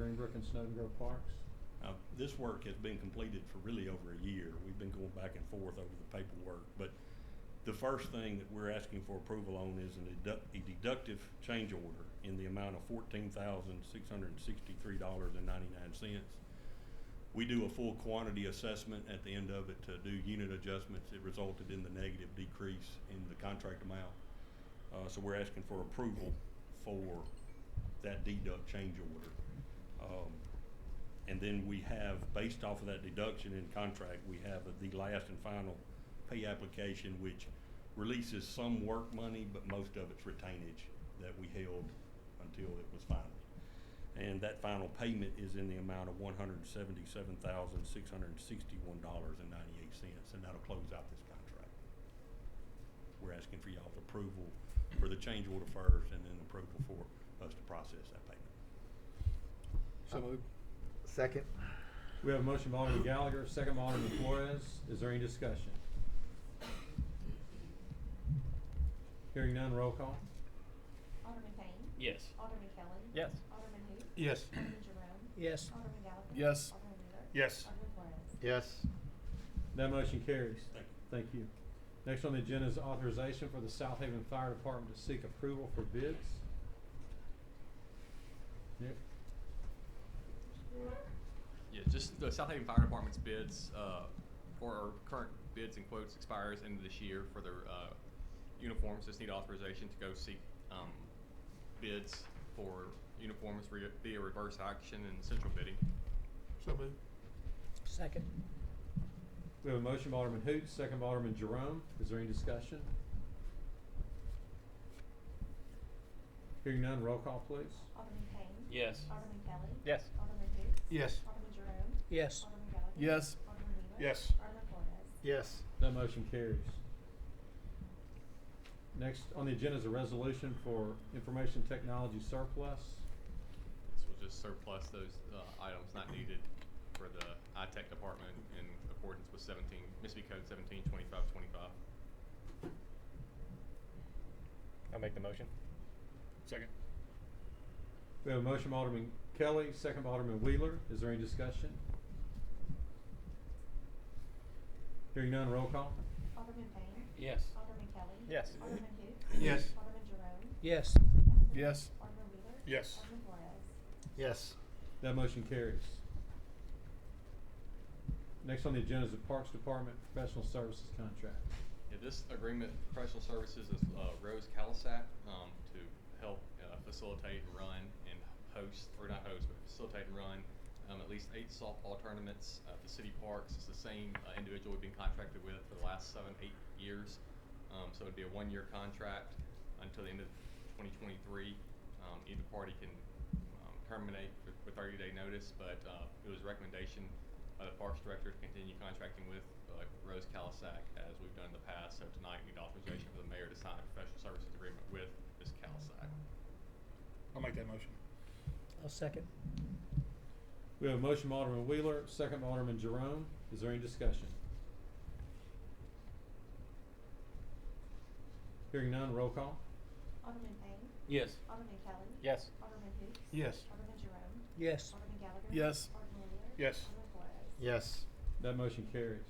Greenbrook and Snowden Grove Parks? Uh, This work has been completed for really over a year. We've been going back and forth over the paperwork. But the first thing that we're asking for approval on is an deduct- a deductive change order in the amount of fourteen thousand, six hundred and sixty-three dollars and ninety-nine cents. We do a full quantity assessment at the end of it to do unit adjustments. It resulted in the negative decrease in the contract amount. Uh, so we're asking for approval for that deduct change order. Um, and then we have, based off of that deduction in contract, we have the last and final pay application, which releases some work money, but most of it's retainage that we held until it was final. And that final payment is in the amount of one hundred and seventy-seven thousand, six hundred and sixty-one dollars and ninety-eight cents, and that'll close out this contract. We're asking for y'all's approval for the change order first, and then approval for us to process that payment. So moved. Oh. Second. We have a motion by Alderman Gallagher, second by Alderman Flores. Is there any discussion? Hearing none, roll call. Alderman Payne. Yes. Alderman Kelly. Yes. Alderman who? Yes. Alderman Jerome. Yes. Alderman Gallagher. Yes. Alderman Wheeler. Yes. Alderman Flores. Yes. That motion carries. Thank you. Thank you. Next on the agenda is authorization for the South Haven Fire Department to seek approval for bids. Nick? Yeah, just the South Haven Fire Department's bids, uh, or our current bids and quotes expires end of this year for their, uh, uniforms. Just need authorization to go seek, um, bids for uniforms re- via reverse auction and central bidding. So moved. Second. We have a motion by Alderman Hoot, second by Alderman Jerome. Is there any discussion? Hearing none, roll call please. Alderman Payne. Yes. Alderman Kelly. Yes. Alderman who? Yes. Alderman Jerome. Yes. Alderman Gallagher. Yes. Alderman Wheeler. Yes. Alderman Flores. Yes. That motion carries. Next on the agenda is a resolution for information technology surplus. This will just surplus those, uh, items not needed for the tech department in accordance with seventeen, Mississippi Code seventeen twenty-five twenty-five. I'll make the motion. Second. We have a motion by Alderman Kelly, second by Alderman Wheeler. Is there any discussion? Hearing none, roll call. Alderman Payne. Yes. Alderman Kelly. Yes. Alderman who? Yes. Alderman Jerome. Yes. Alderman Gallagher. Yes. Alderman Wheeler. Yes. Alderman Flores. Yes. That motion carries. Next on the agenda is the Parks Department Professional Services Contract. Yeah, this agreement, professional services is uh, Rose Calisac um, to help uh, facilitate and run and host, or not host, but facilitate and run um, at least eight softball tournaments at the city parks. It's the same uh, individual we've been contracted with for the last seven, eight years. Um, so it'd be a one-year contract until the end of 2023. Um, either party can um, terminate with, with 30-day notice, but uh, it was a recommendation by the Parks Director to continue contracting with uh, Rose Calisac as we've done in the past. So tonight, we need authorization for the mayor to sign a professional services agreement with Ms. Calisac. I'll make that motion. I'll second. We have a motion by Alderman Wheeler, second by Alderman Jerome. Is there any discussion? Hearing none, roll call. Alderman Payne. Yes. Alderman Kelly. Yes. Alderman who? Yes. Alderman Jerome. Yes. Alderman Gallagher. Yes. Alderman Wheeler. Yes. Alderman Flores. Yes. That motion carries.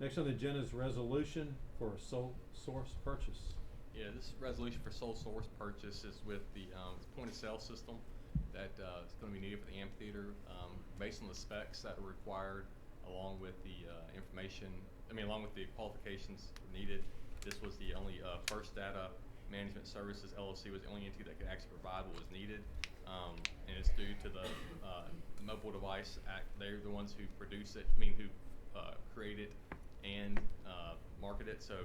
Next on the agenda is resolution for a sole source purchase. Yeah, this resolution for sole source purchase is with the um, point of sale system that uh, is going to be needed for the amphitheater um, based on the specs that are required along with the uh, information, I mean, along with the qualifications needed. This was the only uh, First Data Management Services LLC was the only entity that could actually provide what was needed. Um, and it's due to the uh, Mobile Device Act. They're the ones who produce it, I mean, who uh, create it and uh, market it. So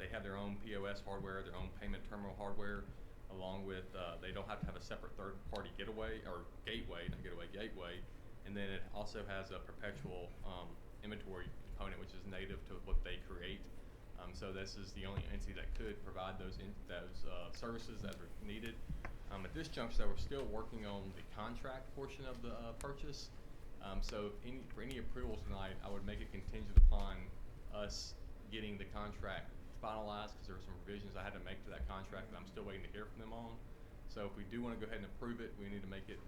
they have their own POS hardware, their own payment terminal hardware, along with uh, they don't have to have a separate third party getaway or gateway, not getaway, gateway. And then it also has a perpetual um, inventory component, which is native to what they create. Um, so this is the only entity that could provide those in, those uh, services that are needed. Um, at this juncture, though, we're still working on the contract portion of the uh, purchase. Um, so if any, for any approval tonight, I would make it contingent upon us getting the contract finalized, because there were some revisions I had to make to that contract that I'm still waiting to hear from them on. So if we do want to go ahead and approve it, we need to make it